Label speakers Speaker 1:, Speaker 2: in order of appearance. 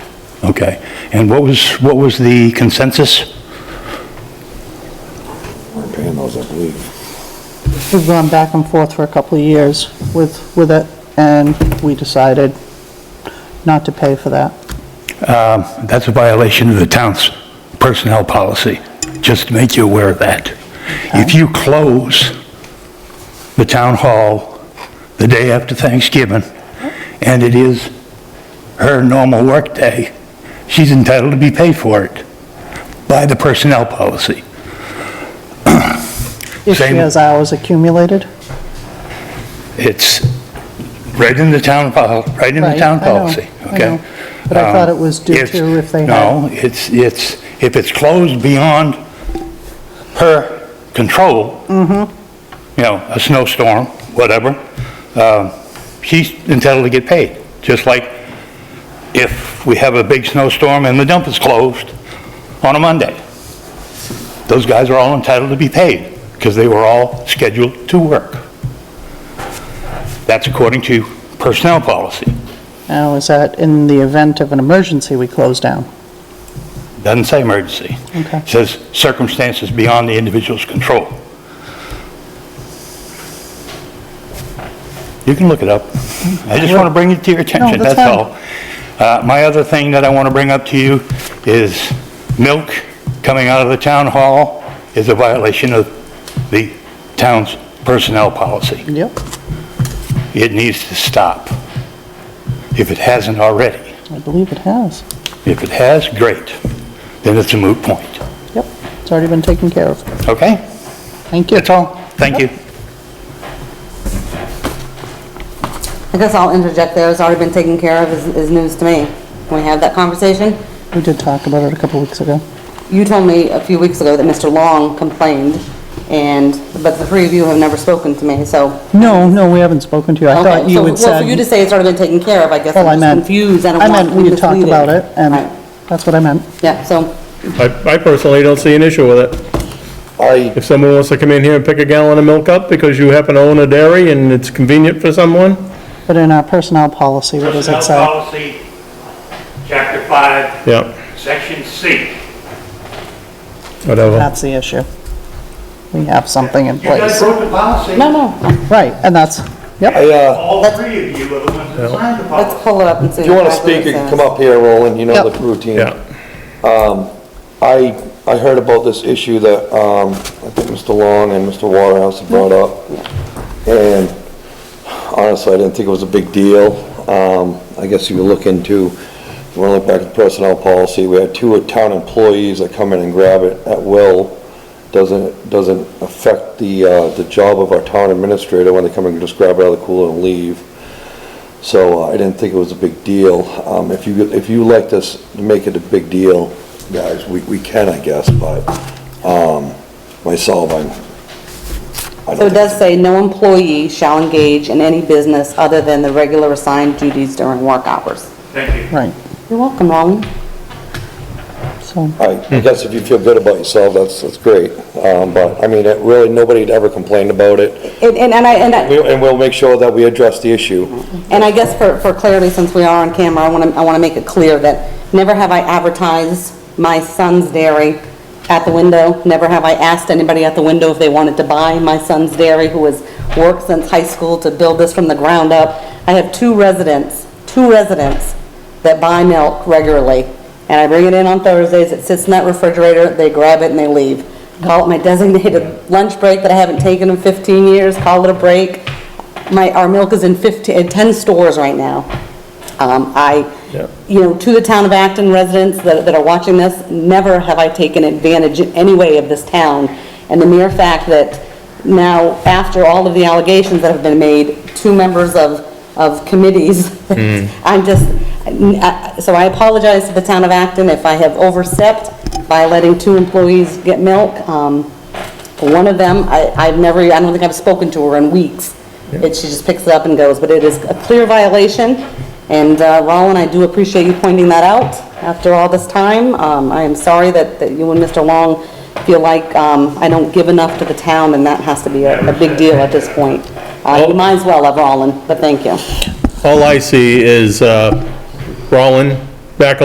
Speaker 1: Okay. And what was, what was the consensus?
Speaker 2: We're paying those, I believe.
Speaker 3: We've gone back and forth for a couple of years with, with it, and we decided not to pay for that.
Speaker 1: Um, That's a violation of the town's personnel policy, just to make you aware of that. If you close the town hall the day after Thanksgiving, and it is her normal workday, she's entitled to be paid for it by the personnel policy.
Speaker 3: If she
Speaker 1: Same.
Speaker 3: has hours accumulated.
Speaker 1: It's right in the town, pol- right in the
Speaker 3: Right,
Speaker 1: town
Speaker 3: I know,
Speaker 1: policy,
Speaker 3: I
Speaker 1: okay?
Speaker 3: know. But I thought
Speaker 1: Um,
Speaker 3: it was due to if they had-
Speaker 1: No, it's, it's, if it's closed beyond her control,
Speaker 3: Mm-hmm.
Speaker 1: you know, a snowstorm, whatever, um, she's entitled to get paid. Just like if we have a big snowstorm and the dump is closed on a Monday. Those guys are all entitled to be paid because they were all scheduled to work. That's according to personnel policy.
Speaker 3: Now, is that in the event of an emergency, we close down?
Speaker 1: Doesn't say emergency.
Speaker 3: Okay.
Speaker 1: Says circumstances beyond the individual's control. You can look it up. I just want to bring it to your attention,
Speaker 3: that's
Speaker 1: that's all. Uh, My other thing that I want to bring up to you is milk coming out of the town hall is a violation of the town's personnel policy.
Speaker 3: Yep.
Speaker 1: It needs to stop, if it hasn't already.
Speaker 3: I believe it has.
Speaker 1: If it has, great, then it's a moot point,
Speaker 3: Yep, it's already been taken care of.
Speaker 1: okay?
Speaker 3: Thank you.
Speaker 1: That's all, thank you.
Speaker 4: I guess I'll interject there, it's already been taken care of, is, is news to me. Can we have that conversation?
Speaker 3: We did talk about it a couple weeks ago.
Speaker 4: You told me a few weeks ago that Mr. Long complained, and, but the three of you have never spoken to me, so.
Speaker 3: No, no, we haven't spoken to you. I thought
Speaker 4: Okay,
Speaker 3: you
Speaker 4: so-
Speaker 3: had
Speaker 4: Well, for you to
Speaker 3: said,
Speaker 4: say it's already been taken care of, I guess
Speaker 3: well, I
Speaker 4: I'm just
Speaker 3: meant,
Speaker 4: confused, I don't
Speaker 3: I
Speaker 4: want
Speaker 3: meant
Speaker 4: to be
Speaker 3: we had talked
Speaker 4: misleading.
Speaker 3: about it, and
Speaker 4: Right.
Speaker 3: that's what I meant.
Speaker 4: Yeah, so,
Speaker 5: I I personally don't see an issue with it.
Speaker 2: I,
Speaker 5: If someone wants to come in here and pick a gallon of milk up because you happen to own a dairy and it's convenient for someone,
Speaker 3: But in our personnel policy, what does it
Speaker 6: Personnel
Speaker 3: say?
Speaker 6: policy, chapter five,
Speaker 5: yeah,
Speaker 6: section C.
Speaker 5: whatever.
Speaker 3: That's the issue. We have something in
Speaker 6: You guys
Speaker 3: place.
Speaker 6: broke the policy.
Speaker 4: no, no,
Speaker 3: Right, and that's, yep,
Speaker 2: I, uh,
Speaker 6: All three of you are the ones that signed the policy.
Speaker 4: let's pull it up and see.
Speaker 2: if you want to
Speaker 4: exactly
Speaker 2: speak, you
Speaker 4: what
Speaker 2: can
Speaker 4: it
Speaker 2: come
Speaker 4: says.
Speaker 2: up here, Roland, you know the
Speaker 3: Yep.
Speaker 2: routine.
Speaker 5: Yeah,
Speaker 2: I, I heard about this issue that, um, I think Mr. Long and Mr. Waterhouse had brought up. And honestly, I didn't think it was a big deal. Um, I guess you look into, if you want to look back at the personnel policy, we had two town employees that come in and grab it at will. Doesn't, doesn't affect the, uh, the job of our town administrator when they come and just grab it out of the cooler and leave. So uh, I didn't think it was a big deal. Um, If you, if you like this, make it a big deal, guys, we, we can, I guess, but um, myself, I'm, I
Speaker 4: So
Speaker 2: don't
Speaker 4: it does say, no employee shall engage in any business other than the regular assigned duties during work hours.
Speaker 6: Thank you.
Speaker 3: right,
Speaker 4: You're welcome, Long.
Speaker 3: so,
Speaker 2: I I guess if you feel good about yourself, that's, that's great. Um, But, I mean, it really, nobody had ever complained about it.
Speaker 4: And, and and I, and I.
Speaker 2: We- And we'll make sure that we address the issue.
Speaker 4: And I guess for, for clarity, since we are on camera, I want to, I want to make it clear that never have I advertised my son's dairy at the window. Never have I asked anybody at the window if they wanted to buy my son's dairy, who has worked since high school to build this from the ground up. I have two residents, two residents that buy milk regularly. And I bring it in on Thursdays, it sits in that refrigerator, they grab it and they leave. Call it my designated lunch break that I haven't taken in 15 years, call it a break. My, our milk is in 15, in 10 stores right now. Um, I,
Speaker 5: Yeah.
Speaker 4: you know, to the town of Acton residents that, that are watching this, never have I taken advantage in any way of this town. And the mere fact that now, after all of the allegations that have been made, two members of, of committees, I'm just, I- so I apologize to the town of Acton if I have overstepped by letting two employees get milk. Um, one of them, I, I've never, I don't think I've spoken to her in weeks. It, she just picks it up and goes, but it is a clear violation. And, uh, Roland, I do appreciate you pointing that out after all this time. Um, I am sorry that, that you and Mr. Long feel like, um, I don't give enough to the town and that has to be a, a big deal at this point. Uh, you might as well have Roland, but thank you.
Speaker 5: all I see is uh, Rollin back